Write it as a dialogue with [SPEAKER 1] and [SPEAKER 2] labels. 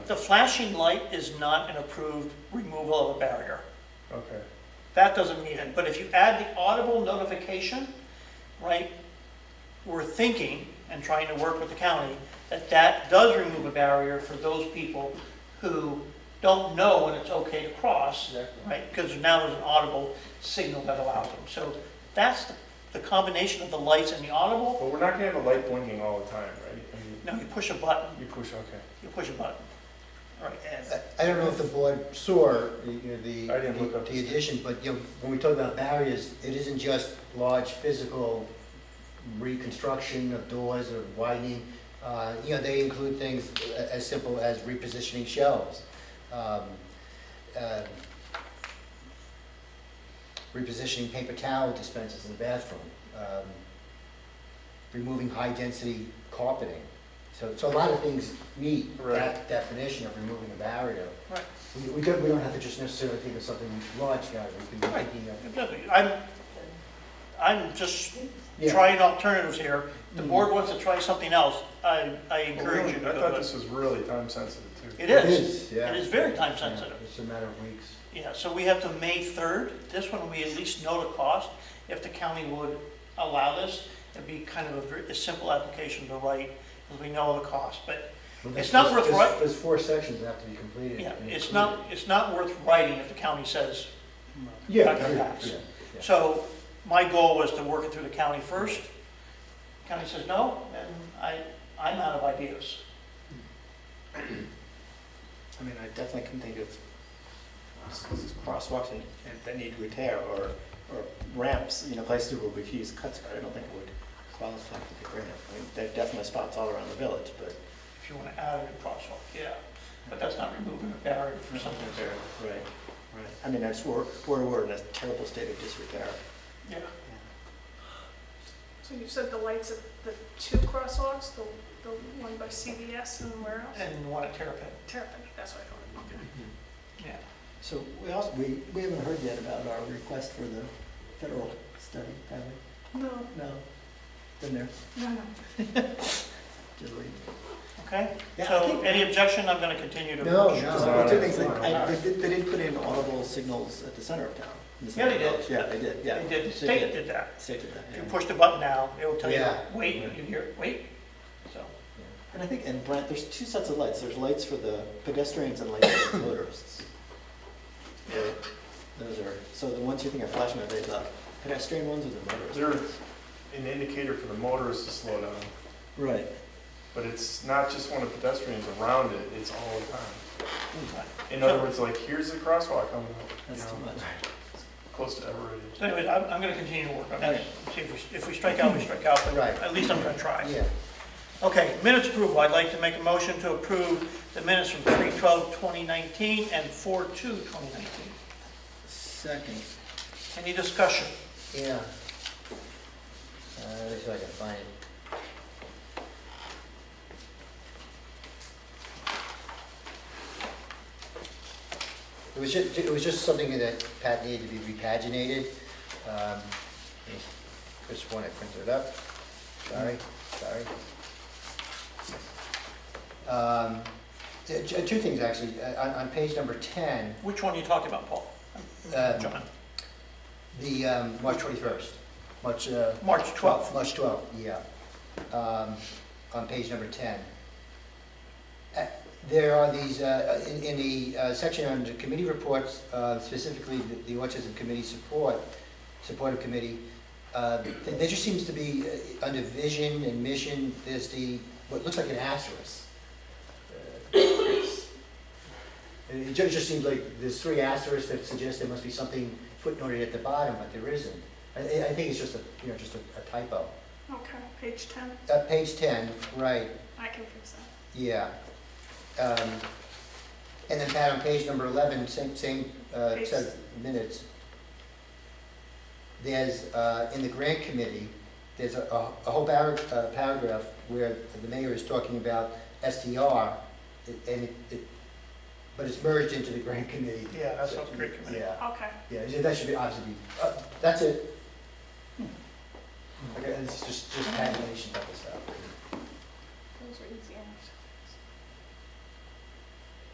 [SPEAKER 1] the flashing light is not an approved removal of a barrier.
[SPEAKER 2] Okay.
[SPEAKER 1] That doesn't mean it, but if you add the audible notification, right, we're thinking and trying to work with the county that that does remove a barrier for those people who don't know when it's okay to cross,
[SPEAKER 2] Exactly.
[SPEAKER 1] right? Because now there's an audible signal that allows them. So that's the- the combination of the lights and the audible.
[SPEAKER 2] But we're not gonna have a light blinking all the time, right? I mean,
[SPEAKER 1] Now you push a button,
[SPEAKER 2] you push, okay.
[SPEAKER 1] you push a button. All right, and
[SPEAKER 3] I- I don't know if the board saw you know, the,
[SPEAKER 2] I didn't look up
[SPEAKER 3] the
[SPEAKER 2] this.
[SPEAKER 3] addition, but you know, when we talk about barriers, it isn't just large physical reconstruction of doors or widening. Uh, You know, they include things a- as simple as repositioning shelves. um, uh, Repositioning paper towel dispensers in the bathroom. um, Removing high-density carpeting. So, so a lot of things meet
[SPEAKER 2] Right.
[SPEAKER 3] that definition of removing a barrier.
[SPEAKER 1] Right.
[SPEAKER 3] We, we don't, we don't have to just necessarily think of something large, guys, we can be
[SPEAKER 1] Right.
[SPEAKER 3] thinking of.
[SPEAKER 1] I'm, I'm just
[SPEAKER 3] Yeah.
[SPEAKER 1] trying alternatives here. The board wants to try something else. I, I
[SPEAKER 2] Well, really,
[SPEAKER 1] encourage you to
[SPEAKER 2] I thought
[SPEAKER 1] do it.
[SPEAKER 2] this was really time sensitive too.
[SPEAKER 1] It is.
[SPEAKER 3] yeah.
[SPEAKER 1] It is very time
[SPEAKER 3] Yeah,
[SPEAKER 1] sensitive.
[SPEAKER 3] It's a matter of weeks.
[SPEAKER 1] Yeah, so we have to May 3rd. This one, we at least know the cost. If the county would allow this, it'd be kind of a, ver- a simple application to write, because we know the cost. But It's
[SPEAKER 3] Well, there's-
[SPEAKER 1] not
[SPEAKER 3] there's-
[SPEAKER 1] worth
[SPEAKER 3] there's-
[SPEAKER 1] what-
[SPEAKER 3] There's four sections that have to be completed.
[SPEAKER 1] yeah,
[SPEAKER 3] and
[SPEAKER 1] it's
[SPEAKER 3] included.
[SPEAKER 1] not, it's not worth writing if the county says,
[SPEAKER 3] Yeah,
[SPEAKER 1] not gonna
[SPEAKER 3] yeah,
[SPEAKER 1] pass.
[SPEAKER 3] yeah, yeah.
[SPEAKER 1] So my goal was to work it through the county first. County says no, and I, I'm out of ideas.
[SPEAKER 4] I mean, I definitely can think of s- s- crosswalks and, and that need repair or, or ramps, you know, places where we've used cuts, but I don't think it would qualify for the grant. I mean, there are definitely spots all around the village, but.
[SPEAKER 1] If you want to add a new crosswalk, yeah, but that's not removing a barrier for something.
[SPEAKER 4] Right, right. I mean, that's, we're, we're, we're in a terrible state of disrepair.
[SPEAKER 1] Yeah,
[SPEAKER 5] So you said the lights at the two crosswalks, the, the one by CVS and where else?
[SPEAKER 1] and you want a terrapin,
[SPEAKER 5] Terrapin, that's what I thought.
[SPEAKER 1] yeah.
[SPEAKER 4] So we also, we, we haven't heard yet about our request for the federal study, have we?
[SPEAKER 5] No,
[SPEAKER 4] No. Been there,
[SPEAKER 5] no, no.
[SPEAKER 4] just waiting.
[SPEAKER 1] Okay,
[SPEAKER 4] Yeah, I
[SPEAKER 1] so
[SPEAKER 4] think-
[SPEAKER 1] any objection, I'm going to continue to.
[SPEAKER 3] No,
[SPEAKER 4] Because
[SPEAKER 3] no.
[SPEAKER 4] the two things,
[SPEAKER 2] no,
[SPEAKER 4] they,
[SPEAKER 1] no.
[SPEAKER 4] I- they did, they did put in audible signals at the center of town. in the
[SPEAKER 1] Yeah, they
[SPEAKER 4] center of
[SPEAKER 1] did.
[SPEAKER 4] town. Yeah, they did, yeah.
[SPEAKER 1] They did, the state did that.
[SPEAKER 4] State did that,
[SPEAKER 1] If you
[SPEAKER 4] yeah.
[SPEAKER 1] push the button now, it will tell you,
[SPEAKER 3] Yeah.
[SPEAKER 1] wait, you hear, wait, so.
[SPEAKER 4] And I think, and Brent, there's two sets of lights. There's lights for the pedestrians and lights for the motorists. Right? Those are, so the ones you think are flashing, are they the pedestrian ones or the motorists?
[SPEAKER 2] They're an indicator for the motorists to slow down,
[SPEAKER 4] Right.
[SPEAKER 2] but it's not just when a pedestrian's around it, it's all the time. In
[SPEAKER 1] So-
[SPEAKER 2] other words, like, here's the crosswalk, I'm, you
[SPEAKER 4] That's too
[SPEAKER 2] know,
[SPEAKER 4] much.
[SPEAKER 2] close to Everett.
[SPEAKER 1] So anyways, I'm, I'm going to continue to work on this. See if we, if we strike out, we strike out, but
[SPEAKER 3] Right.
[SPEAKER 1] at least I'm going to try.
[SPEAKER 3] Yeah,
[SPEAKER 1] Okay, minutes approval. I'd like to make a motion to approve the minutes from 3/12/2019 and 4/2/2019.
[SPEAKER 4] Second.
[SPEAKER 1] Any discussion?
[SPEAKER 3] yeah. Uh, let me see if I can find it. It was just, it was just something that Pat needed to be repaginated. Um, Chris, one, I printed it up. Sorry, sorry. Um, t- t- Two things, actually. Uh, On, on page number 10,
[SPEAKER 1] Which one are you talking about, Paul?
[SPEAKER 3] uh,
[SPEAKER 1] John?
[SPEAKER 3] the, um, March 21st, March, uh,
[SPEAKER 1] March 12th.
[SPEAKER 3] March 12th, yeah. Um, On page number 10. Uh, There are these, uh, in in the uh, section under committee reports, uh, specifically the- the autism committee support, supportive committee, uh, th- there just seems to be, uh, under vision and mission, there's the, what looks like an asterisk. And It ju- just seems like there's three asterisks that suggest there must be something footnoted at the bottom, but there isn't. I, I I think it's just a, you know, just a a typo.
[SPEAKER 5] Okay, page ten,
[SPEAKER 3] Uh, page ten, right,
[SPEAKER 5] I can fix that.
[SPEAKER 3] yeah. Um, and then Pat, on page number eleven, same, same, uh,
[SPEAKER 5] Page-
[SPEAKER 3] set of minutes. There's, uh, in the grant committee, there's a, a a whole par- uh, paragraph where the mayor is talking about STR, and it, it, but it's merged into the grant committee.
[SPEAKER 1] Yeah, that's what the great committee.
[SPEAKER 3] Yeah.
[SPEAKER 5] Okay,
[SPEAKER 3] Yeah, yeah, that should be, obviously, be- uh, that's it. Okay, it's just, just tabulation of this stuff.
[SPEAKER 5] those are easy answers.